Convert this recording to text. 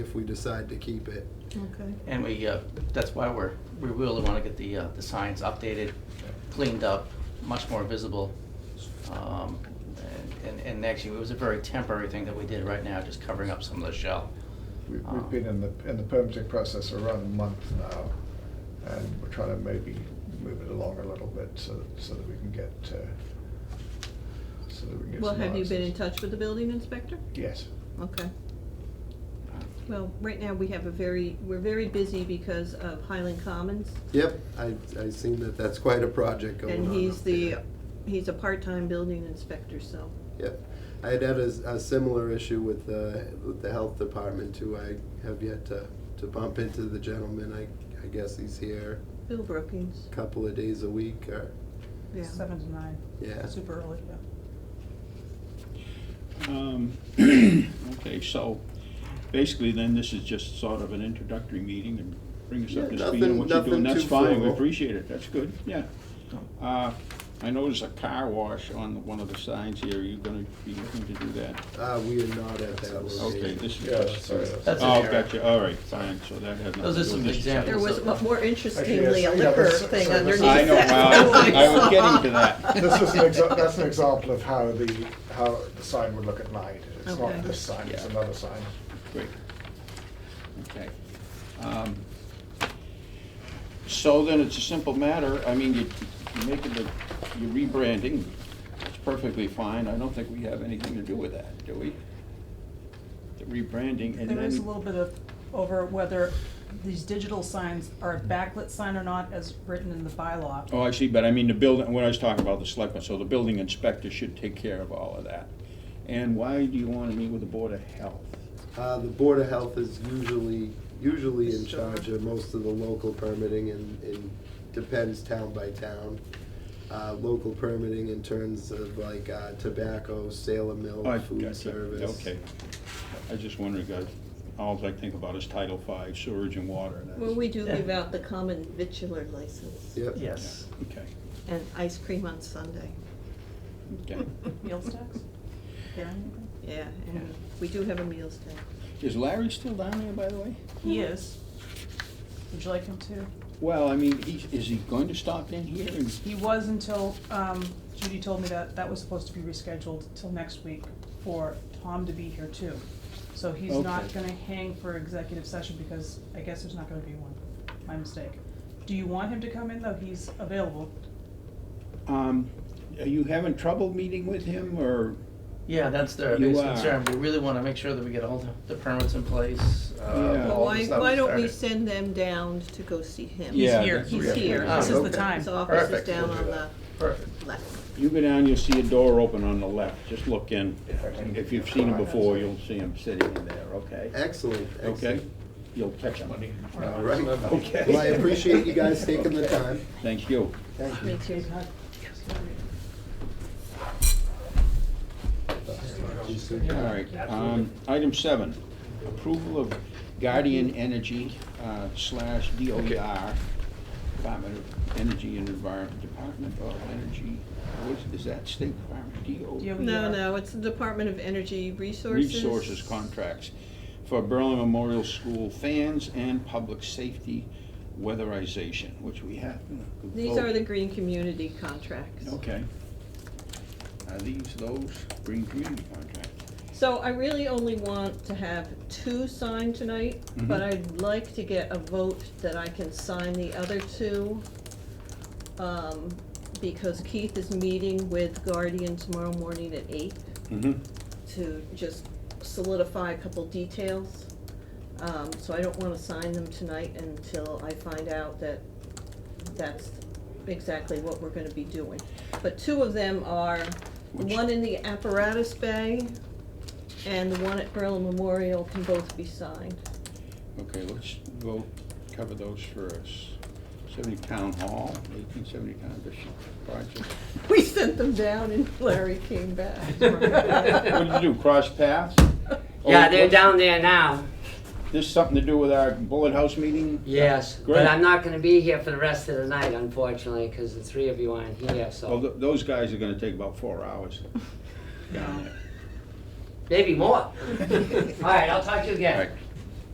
if we decide to keep it. Okay. And we, uh, that's why we're, we really want to get the, uh, the signs updated, cleaned up, much more visible. Um, And, and actually, it was a very temporary thing that we did right now, just covering up some of the shell. We- Ah. We've been in the, in the permitting process for around a month now, and we're trying to maybe move it along a little bit so that, so that we can get, uh, so that we can get Well, some have you been in answers. touch with the building inspector? Yes. Okay. Well, right now, we have a very, we're very busy because of Highland Commons. Yep, I, I seen that that's quite a project going on. And he's up the, there. he's a part-time building inspector, so. Yep. I had had a, s- a similar issue with the, with the health department too. I have yet to, to bump into the gentleman. I, I guess he's here Bill Brookings, a couple of days a week or, yeah. Seven to nine, yeah. super early, yeah. Um, Okay, so basically then this is just sort of an introductory meeting and bring us up Yeah, to speed on nothing- what you're nothing doing. That's too fine, we formal. appreciate it, that's good, yeah. Uh, I noticed a car wash on one of the signs here, are you gonna be looking to do that? Uh, we are not at that location. Okay, this is Yeah, just. sorry. That's Oh, an error. gotcha, all right, fine, so that had nothing to do Those with are this. some There examples. was So- a more Actually, interestingly, a yes, yeah, liquor this- thing so underneath this is- I know, that. well, I was getting to that. This is an exa, that's an example of how the, how the sign would look at night. It's Okay. not this sign, it's Yeah. another sign. Great. Okay. Um, So then it's a simple matter, I mean, you- you're making the, you're rebranding, it's perfectly fine, I don't think we have anything to do with that, do we? The rebranding and then. There is a little bit of over whether these digital signs are a backlit sign or not as written in the bylaw. Oh, I see, but I mean, the building, what I was talking about, the selectmen, so the building inspector should take care of all of that. And why do you want to meet with the Board of Health? Uh, the Board of Health is usually, usually in Sure. charge of most of the local permitting and, and depends town by town. Uh, local permitting in terms of like, uh, tobacco, sale of Oh, milk, food gotcha. service. Okay. I just wondering, guys, all I think about is Title V, sewage and water. and that's- Well, we do give out the common vitular license Yep. Yes. Okay, and ice cream on Sunday. okay. Meals tax? There anything? Yeah, Yeah. and we do have a meals tax. Is Larry still down there, by the way? He is. Would you like him to? Well, I mean, he, is he going to stop in here and? He was until, um, Judy told me that that was supposed to be rescheduled till next week for Tom to be here too. So he's not Okay. gonna hang for executive session because I guess there's not gonna be one. My mistake. Do you want him to come in though? He's available. Um, are you having trouble meeting with him or? Yeah, that's their You biggest are. concern. We really want to make sure that we get all the- the permits in place. uh, Yeah. Well, all the why, stuff why don't we started. send them down to go see him? Yeah, He's here, that's he's what we here. have This to is do. the Okay. time. His office is Perfect. down We'll on do the Perfect. left. You go down, you'll see a door open on the left, just look in. If you've seen him before, you'll see him sitting in there, okay? Excellent, Okay? excellent. You'll catch him. Uh, All right. Okay. Well, I appreciate you guys taking the time. Thank you. Thank you. Me too. All right, um, item seven, approval of Guardian Energy uh, slash DOER, Department of Energy and Environment, Department of Energy, what is, is that State Department, E DO? DOER. No, no, it's the Department of Energy Resources. Resources contracts for Berlin Memorial School fans and public safety weatherization, which we have. These Oh. are the green community contracts. Okay. Are these those green community contracts? So I really only want to have two signed tonight, Mm-hmm. but Mhm. I'd like to get a vote that I can sign the other two. Um, because Keith is meeting with Guardian tomorrow morning at eight Mm-hmm. to just solidify a couple details. Um, so I don't wanna sign them tonight until I find out that that's exactly what we're gonna be doing. But two of them are, the Which- one in the apparatus bay and the one at Berlin Memorial can both be signed. Okay, let's go cover those first. Seventy Town Hall, eighteen seventy Town District Project. We sent them down and Larry came back. What did you do, cross paths? Yeah, Oh, they're what's- down there now. This something to do with our bullet house meeting? Yes, Great. but I'm not going to be here for the rest of the night, unfortunately, because the three of you aren't here. Well, So th- those guys are gonna take about four hours down there. maybe more. All right, I'll talk to you All right, again.